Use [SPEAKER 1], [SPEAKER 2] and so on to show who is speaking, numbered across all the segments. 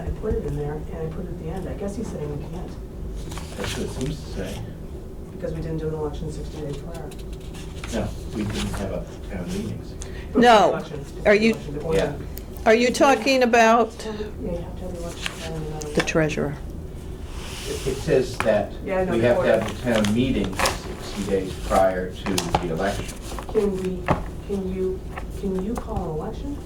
[SPEAKER 1] I put it in there, and I put it at the end, I guess he's saying we can't,
[SPEAKER 2] That's what it seems to say.
[SPEAKER 1] because we didn't do an election sixty days prior.
[SPEAKER 2] No, we didn't have a town meetings.
[SPEAKER 3] No.
[SPEAKER 1] Election-
[SPEAKER 3] Are you-
[SPEAKER 1] election, the order.
[SPEAKER 2] Yeah.
[SPEAKER 3] Are you talking about
[SPEAKER 1] Yeah, you have to have the election. plan and then-
[SPEAKER 3] the treasurer?
[SPEAKER 2] It it says that we
[SPEAKER 1] Yeah, I
[SPEAKER 2] have
[SPEAKER 1] know
[SPEAKER 2] to
[SPEAKER 1] the
[SPEAKER 2] have the town meeting 60 days prior to the election.
[SPEAKER 1] Can we, can you, can you call an election?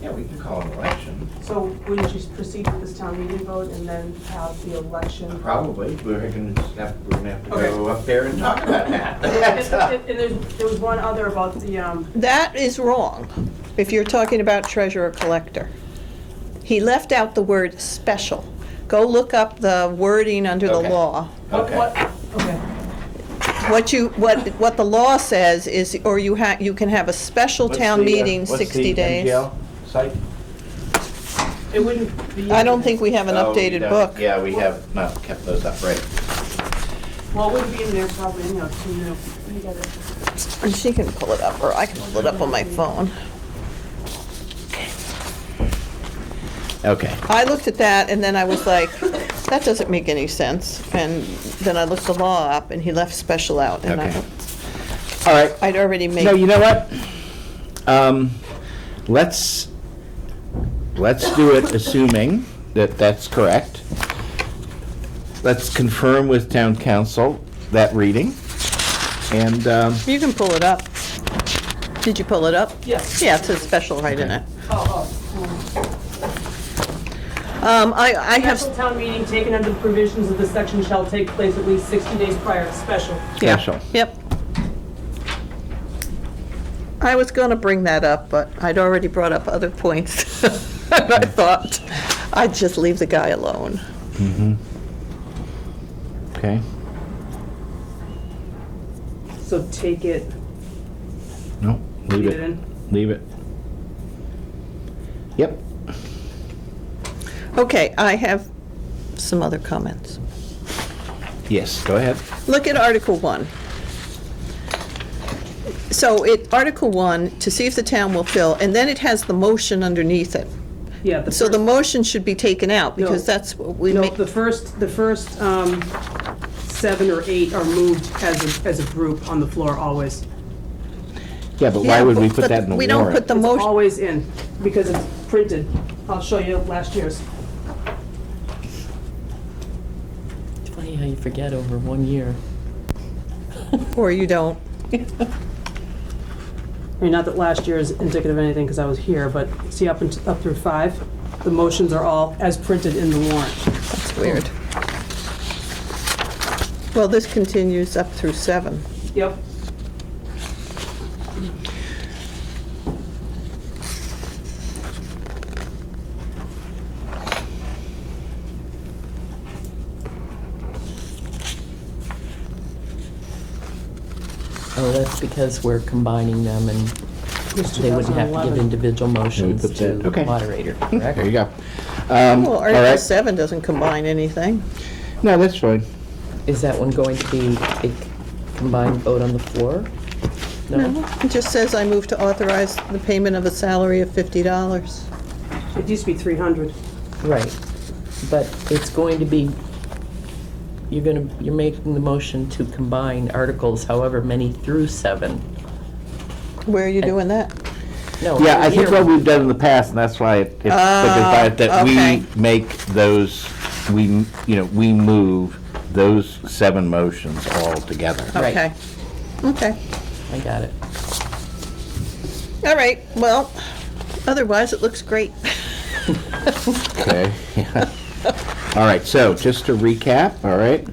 [SPEAKER 2] Yeah, we can call an election,
[SPEAKER 1] So wouldn't you proceed with this town meeting vote and then have the election?
[SPEAKER 2] probably. We're gonna just have, we're gonna have to
[SPEAKER 1] Okay.
[SPEAKER 2] go up there and talk about that.
[SPEAKER 1] And
[SPEAKER 2] That's all.
[SPEAKER 1] and there's, there was one other about the, um,
[SPEAKER 3] That is wrong, if you're talking about treasurer collector. He left out the word special. Go look up the wording under the
[SPEAKER 2] Okay.
[SPEAKER 3] law.
[SPEAKER 1] what,
[SPEAKER 2] Okay.
[SPEAKER 1] what, okay,
[SPEAKER 3] What you, what, what the law says is, or you ha, you can have a special
[SPEAKER 2] What's
[SPEAKER 3] town
[SPEAKER 2] the, uh,
[SPEAKER 3] meeting
[SPEAKER 2] what's the
[SPEAKER 3] 60 days.
[SPEAKER 2] MGL site?
[SPEAKER 1] it wouldn't be.
[SPEAKER 3] I don't think we have an
[SPEAKER 2] Oh, we
[SPEAKER 3] updated
[SPEAKER 2] don't-
[SPEAKER 3] book.
[SPEAKER 2] Yeah, we have not kept those upright.
[SPEAKER 1] Well, it wouldn't be in there probably, you know, to, you know, you gotta-
[SPEAKER 3] And she can pull it up, or I can pull it up on my phone.
[SPEAKER 2] Okay.
[SPEAKER 3] I looked at that, and then I was like, that doesn't make any sense. And then I looked the law up, and he left special out, and I,
[SPEAKER 2] Okay. All right.
[SPEAKER 3] I'd already made.
[SPEAKER 2] No, you know what? Um, let's, let's do it assuming that that's correct. Let's confirm with town council that reading. And, um,
[SPEAKER 3] You can pull it up. Did you pull it up?
[SPEAKER 1] Yes.
[SPEAKER 3] Yeah, it says special right in it.
[SPEAKER 1] Oh, oh.
[SPEAKER 3] Um, I, I
[SPEAKER 1] Special
[SPEAKER 3] have,
[SPEAKER 1] town meeting taken under the provisions of this section shall take place at least 60 days prior to special.
[SPEAKER 2] special.
[SPEAKER 3] yep. I was gonna bring that up, but I'd already brought up other points. And I thought I'd just leave the guy alone.
[SPEAKER 2] Okay,
[SPEAKER 1] So take it,
[SPEAKER 2] no, leave
[SPEAKER 1] leave it
[SPEAKER 2] it,
[SPEAKER 1] in.
[SPEAKER 2] leave it. Yep,
[SPEAKER 3] Okay, I have some other comments.
[SPEAKER 2] yes, go ahead.
[SPEAKER 3] Look at Article 1. So it, Article 1, to see if the town will fill, and then it has the motion underneath it.
[SPEAKER 4] Yeah, the
[SPEAKER 3] So the
[SPEAKER 4] first,
[SPEAKER 3] motion should be taken out, because
[SPEAKER 4] No.
[SPEAKER 3] that's what we
[SPEAKER 4] no,
[SPEAKER 3] make.
[SPEAKER 4] the first, the first um, seven or eight are moved as a, as a group on the floor always.
[SPEAKER 2] Yeah, but why
[SPEAKER 3] Yeah,
[SPEAKER 2] would we
[SPEAKER 3] but-
[SPEAKER 2] put
[SPEAKER 3] but
[SPEAKER 2] that in the
[SPEAKER 3] We don't
[SPEAKER 2] warrant?
[SPEAKER 3] put the
[SPEAKER 4] It's
[SPEAKER 3] motion,
[SPEAKER 4] always in, because it's printed.
[SPEAKER 1] I'll show you last year's.
[SPEAKER 5] It's funny how you forget over one year.
[SPEAKER 3] or you don't.
[SPEAKER 4] I mean, not that last year is indicative of anything, because I was here, but see up and, up through five, the motions are all as printed in the warrant.
[SPEAKER 3] That's weird. Well, this continues up through 7.
[SPEAKER 4] Yep.
[SPEAKER 5] Oh, that's because we're combining them and they wouldn't have to give
[SPEAKER 4] 2011.
[SPEAKER 5] individual motions
[SPEAKER 2] put
[SPEAKER 5] to
[SPEAKER 2] that- okay.
[SPEAKER 5] the moderator,
[SPEAKER 2] There you
[SPEAKER 5] correct?
[SPEAKER 2] go. Um,
[SPEAKER 3] Well,
[SPEAKER 2] all right.
[SPEAKER 3] Article 7 doesn't combine anything.
[SPEAKER 2] No, that's fine.
[SPEAKER 5] Is that one going to be a combined vote on the floor? No?
[SPEAKER 3] It just says, "I move to authorize the payment of a salary of $50."
[SPEAKER 4] It used to be 300.
[SPEAKER 5] Right. But it's going to be, you're gonna, you're making the motion to combine articles however many through seven.
[SPEAKER 3] Where are you doing that?
[SPEAKER 5] No.
[SPEAKER 2] Yeah,
[SPEAKER 5] over
[SPEAKER 2] I think
[SPEAKER 5] here.
[SPEAKER 2] what we've done in the past, and that's why it- it's because by it that
[SPEAKER 3] okay.
[SPEAKER 2] we make those, we, m- you know, we move those seven motions all together.
[SPEAKER 5] Right.
[SPEAKER 3] Okay. Okay.
[SPEAKER 5] I got it.
[SPEAKER 3] All right, well, otherwise, it looks great.
[SPEAKER 2] Okay. Yeah. All right, so just to recap, all right,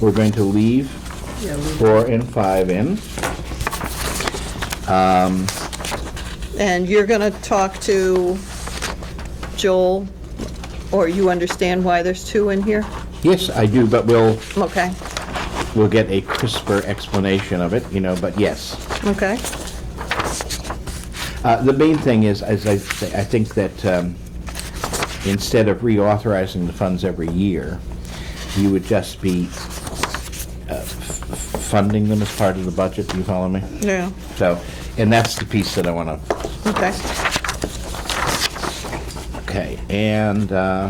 [SPEAKER 2] we're going to leave four and five in.
[SPEAKER 3] And you're going to talk to Joel, or you understand why there's two in here?
[SPEAKER 2] Yes, I do, but we'll,
[SPEAKER 3] Okay,
[SPEAKER 2] we'll get a crisper explanation of it, you know, but yes.
[SPEAKER 3] okay.
[SPEAKER 2] Uh, The main thing is, as I, say, I think that um, instead of reauthorizing the funds every year, you would just be uh, f- funding them as part of the budget, do you follow me?
[SPEAKER 3] Yeah,
[SPEAKER 2] So, and that's the piece that I want to,
[SPEAKER 3] okay.
[SPEAKER 2] okay, and, uh,